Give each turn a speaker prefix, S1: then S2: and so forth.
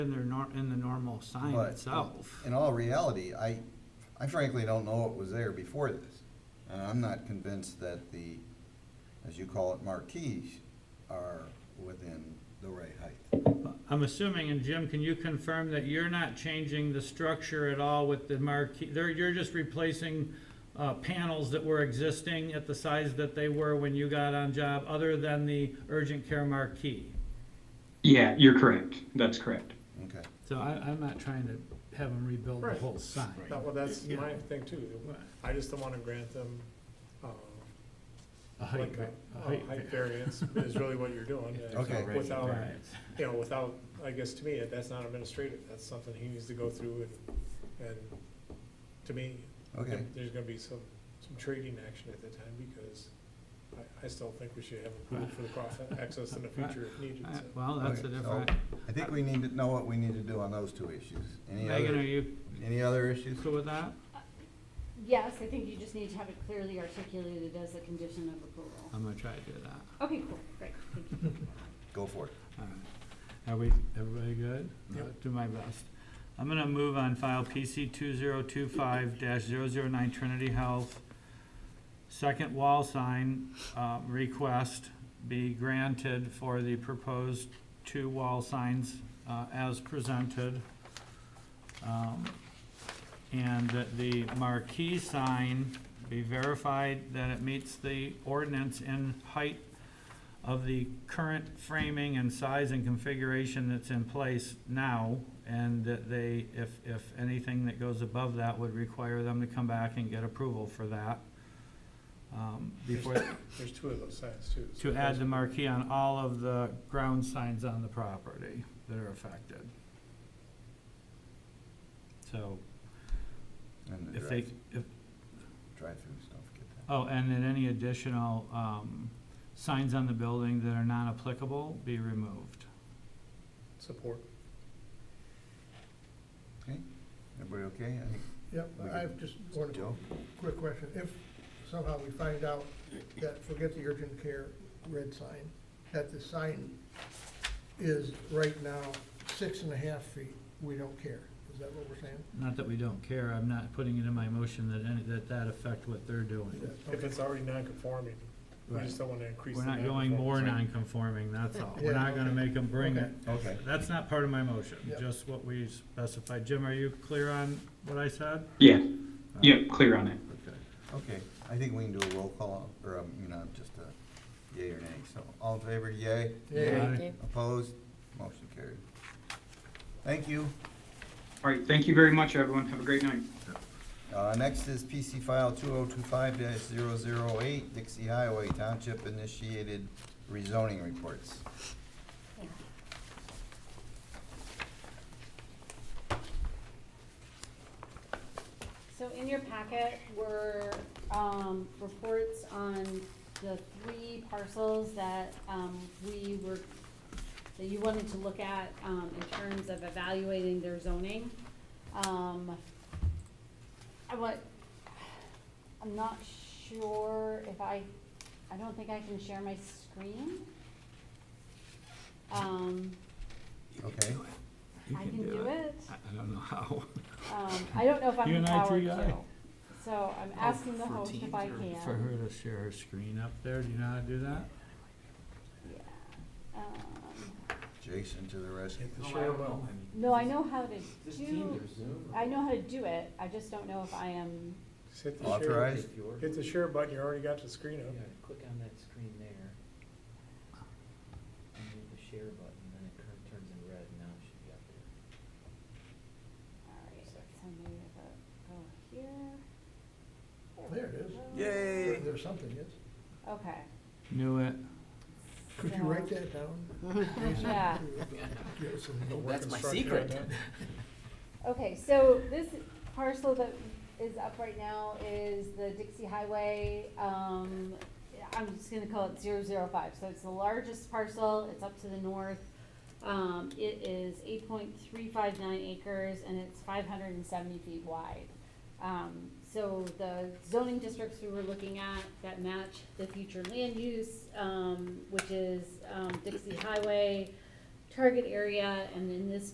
S1: in their nor, in the normal sign
S2: But-
S1: itself.
S2: In all reality, I, I frankly don't know what was there before this. And I'm not convinced that the, as you call it, marquees are within the right height.
S1: I'm assuming, and Jim, can you confirm that you're not changing the structure at all with the marquee? There, you're just replacing, uh, panels that were existing at the size that they were when you got on job, other than the urgent care marquee?
S3: Yeah, you're correct. That's correct.
S2: Okay.
S1: So I, I'm not trying to have them rebuild the
S4: Right.
S1: whole sign.
S4: That, well, that's
S1: Yeah.
S4: my thing too. I just don't wanna grant them, um,
S1: A height
S4: like
S1: va-
S4: a,
S1: a
S4: a
S1: height
S4: height
S1: va-
S4: variance is really what you're doing.
S5: Yeah, it's
S2: Okay.
S5: outrageous.
S4: Without-
S1: Right.
S4: You know, without, I guess to me, that's not administrative. That's something he needs to go through and, and to me,
S2: Okay,
S4: there's gonna be some, some trading action at that time because I, I still think we should have approval for the cross access in the future if needed,
S1: Uh,
S4: so.
S1: Well, that's a
S2: Okay, so-
S1: different,
S2: I think we need to know what we need to do on those two issues. Any
S1: Megan, are
S2: other,
S1: you
S2: any other issues?
S1: cool with that?
S6: Yes, I think you just need to have it clearly articulated as a condition of approval.
S1: I'm gonna try to do that.
S6: Okay, cool, great, thank you.
S2: Go for it.
S1: All right. Are we, everybody good?
S4: Yep.
S1: I'll Do my best. I'm gonna move on file PC two zero two five 9 Trinity Health. Second wall sign, uh, request be granted for the proposed two wall signs, uh, as presented. Um, And that the marquee sign be verified that it meets the ordinance in height of the current framing and size and configuration that's in place now, and that they, if, if anything that goes above that would require them to come back and get approval for that. Um, Before,
S4: There's two of those signs too. so
S1: to add
S4: those-
S1: the marquee on all of the ground signs on the property that are affected. So,
S2: And the
S1: if they,
S2: drive,
S1: if,
S2: drive-through stuff, get that.
S1: oh, and then any additional, um, signs on the building that are non-applicable be removed.
S4: Support.
S2: Everybody okay? I think-
S5: Yep,
S2: We
S5: I
S2: can-
S5: have just one
S2: Joe?
S5: quick question. If somehow we find out that, forget the urgent care red sign, that the sign is right now six and a half feet, we don't care. Is that what we're saying?
S1: Not that we don't care, I'm not putting it in my motion that any, that that affect what they're doing.
S4: If it's already non-conforming, we just don't wanna increase the
S1: We're not going more
S4: non-conformance.
S1: non-conforming, that's all. We're
S5: Yeah,
S1: not gonna
S5: okay.
S1: make them bring it.
S5: Okay.
S2: Okay.
S1: That's not part of my motion,
S5: Yep.
S1: just what we specified. Jim, are you clear on what I said?
S3: Yeah. Yep, clear on it.
S1: Okay.
S2: Okay, I think we can do a roll call, or, um, you know, just a yay or nay, so, all in favor, yay?
S1: Aye.
S2: Opposed? Motion carried. Thank you.
S3: All right. Thank you very much, everyone. Have a great night.
S2: Uh, next is PC file two oh two five 8 Dixie Highway Township initiated rezoning reports.
S6: So in your packet were, um, reports on the three parcels that, um, we were, that you wanted to look at, um, in terms of evaluating their zoning. Um, I what, I'm not sure if I, I don't think I can share my screen. Um,
S2: Okay,
S1: You
S6: I can do it.
S1: I I don't know how.
S6: Um, I don't know if I'm
S1: You and I
S6: empowered
S1: too,
S6: to.
S1: yeah. Oh,
S6: So I'm asking the host if I
S1: For her
S6: can.
S1: to share her screen up there, do you know how to do that?
S6: Yeah. Um,
S2: Jason to the rescue.
S4: Share well.
S6: No, I know how to
S7: This Teams
S6: do,
S7: or Zoom? or-
S6: I know how to do it, I just don't know if I am,
S4: Just hit the share,
S2: Authorized?
S7: If you're-
S4: hit the share button, you already got the screen
S7: Yeah,
S4: up.
S7: click on that screen there. And then the share button, then it turn- turns in red, now it should be up there.
S6: alright, so maybe if I go here.
S5: There it is.
S6: we go.
S5: There- There's something, yes.
S6: Okay.
S1: Knew it.
S5: Could you write that down? Jason?
S6: Yeah.
S5: Give us some
S4: The
S5: notes.
S4: work
S7: That's my
S4: instruction on
S7: secret.
S4: that.
S6: Okay, so this parcel that is up right now is the Dixie Highway, um, I'm just gonna call it zero zero five, so it's the largest parcel, it's up to the north. Um, it is eight point three five nine acres and it's five hundred and seventy feet wide. Um, so the zoning districts we were looking at that match the future land use, um, which is, um, Dixie Highway, target area, and in this